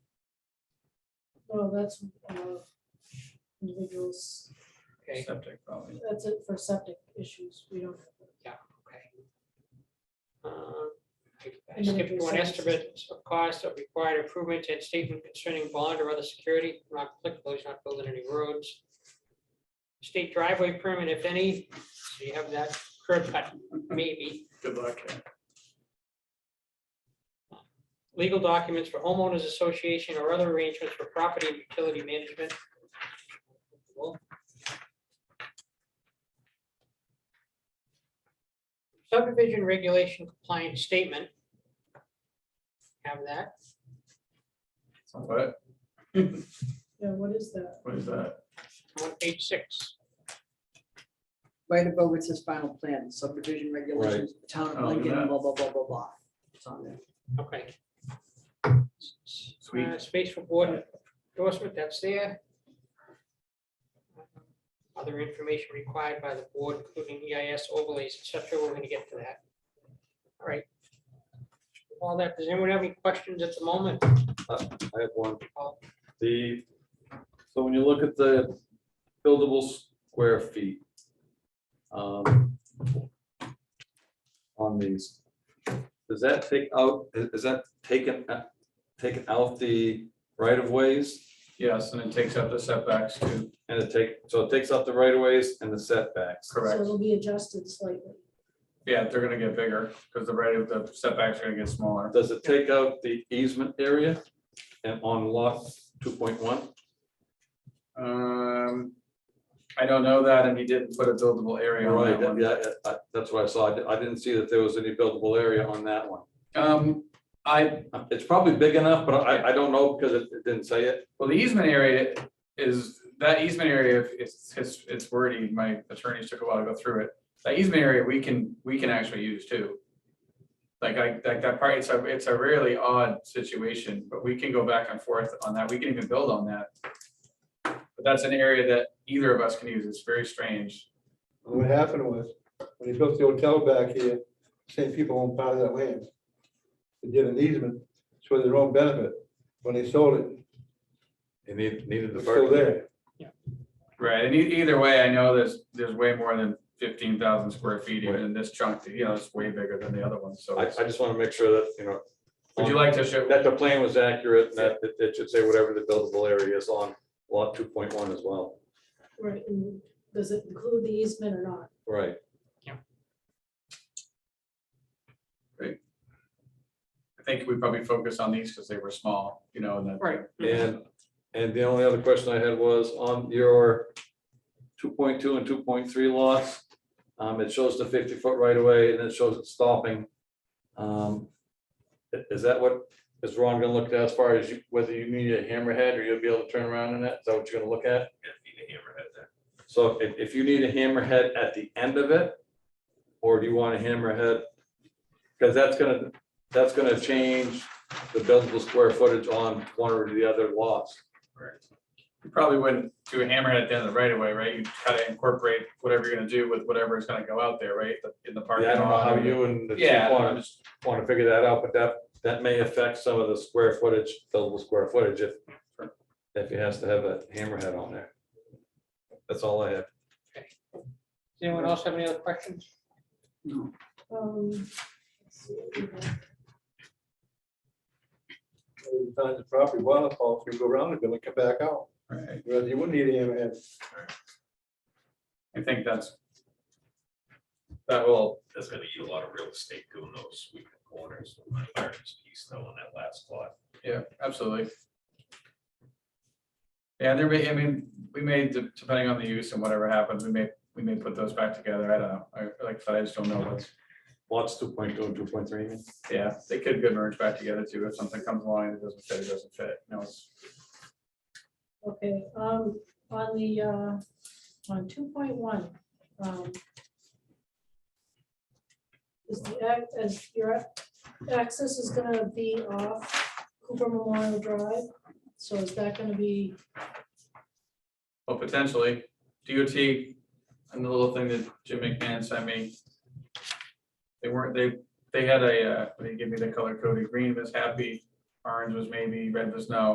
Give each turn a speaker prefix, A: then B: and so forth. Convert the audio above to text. A: Well, that's uh, individuals,
B: Okay,
C: Septic probably.
A: that's it for septic issues. We don't,
B: okay. Uh, I- I skipped one estimate of cost of required improvement and statement concerning bond or other security, not applicable, he's not building any roads. State driveway permit, if any, so you have that curb cut, maybe.
C: Good luck.
B: Legal documents for homeowners association or other arrangements for property and utility management. Well, Subdivision regulation compliance statement. Have that.
C: What,
A: yeah, what is that?
C: what is that?
B: on page six.
D: right above it says final plan, subdivision regulations, town
C: Oh,
D: of Lincoln,
C: yeah.
D: blah, blah, blah, blah, blah. It's on there.
B: Okay.
C: Sweet.
B: Uh, Space for board endorsement, that's there. Other information required by the board, including EIS overlays, etc. We're gonna get to that. All right. All that, does anyone have any questions at the moment?
E: I have one.
B: Oh.
E: The, so when you look at the buildable square feet. um, On these, does that take out, i- is that taken, a- taken out the right of ways?
C: Yes, and it takes up the setbacks too,
E: And it take, so it takes out the right of ways and the setbacks.
A: So
C: correct?
A: it'll be adjusted slightly.
C: Yeah, they're gonna get bigger, because the rate of the setbacks are gonna get smaller.
E: Does it take out the easement area and on lot two point one?
C: Um, I don't know that, and he didn't put a buildable area on
E: Right,
C: that one.
E: yeah, I- that's what I saw. I di- I didn't see that there was any buildable area on that one.
C: Um, I,
E: It's probably big enough, but I, I don't know because it it didn't say it.
C: well, the easement area is, that easement area, it's, it's, it's wordy, my attorneys took a while to go through it. That easement area, we can, we can actually use too. Like I, like that part, it's a, it's a really odd situation, but we can go back and forth on that, we can even build on that. But that's an area that either of us can use, it's very strange.
F: And What happened was, when they built the hotel back here, same people owned part of that land. They did an easement, it's for their own benefit. When they sold it,
E: It needed, needed
F: it
E: the
F: was still
E: parking.
F: there.
C: Right, and e- either way, I know there's, there's way more than fifteen thousand square feet even in this chunk, you know, it's way bigger than the other one, so.
E: I, I just want to make sure that, you know,
C: Would you like to show?
E: that the plan was accurate and that it- it should say whatever the buildable area is on lot two point one as well.
A: Right, and does it include the easement or not?
E: Right.
C: I think we probably focus on these because they were small, you know, and that.
B: Right.
E: And, and the only other question I had was on your two point two and two point three lots. Um, it shows the fifty foot right away, and it shows it stopping. Um, i- is that what is Ron gonna look at as far as you- whether you need a hammerhead or you'll be able to turn around in that? Is that what you're gonna look at? So if, if you need a hammerhead at the end of it, or do you want a hammerhead? Because that's gonna, that's gonna change the buildable square footage on one or the other lots.
C: You probably wouldn't do a hammerhead at the end of the right of way, right? You try to incorporate whatever you're gonna do with whatever is gonna go out there, right? The- In the parking
E: Yeah, I don't know
C: lot.
E: how you and the
C: Yeah,
E: chief
C: I'm
E: want to,
C: just-
E: want to figure that out, but that, that may affect some of the square footage, buildable square footage if, if he has to have a hammerhead on there. That's all I have.
B: Does Anyone else have any other questions?
A: Um, let's see what we have.
F: Times the property waterfall, if you go around the building, come back out,
C: Right.
F: whereas you wouldn't need a hammerhead.
C: I think that's. That will,
G: that's gonna eat a lot of real estate doing those sweeping corners. My largest piece though on that last lot.
C: yeah, absolutely. Yeah, there may, I mean, we may, de- depending on the use and whatever happens, we may, we may put those back together. I don't know. I, like I said, I just don't know what's.
E: Lots two point two and two point three.
C: Yeah, they could get merged back together too, if something comes along that doesn't fit, it doesn't fit, no, it's,
A: Okay, um, on the, uh, on two point one, um. Is the, ac- is your ac- access is gonna be off Cooper Memorial Drive, so is that gonna be,
C: well, potentially, DOT. And the little thing that Jim McMahon sent me. They weren't, they, they had a, uh, they gave me the color coded, green was happy, orange was maybe, red was no.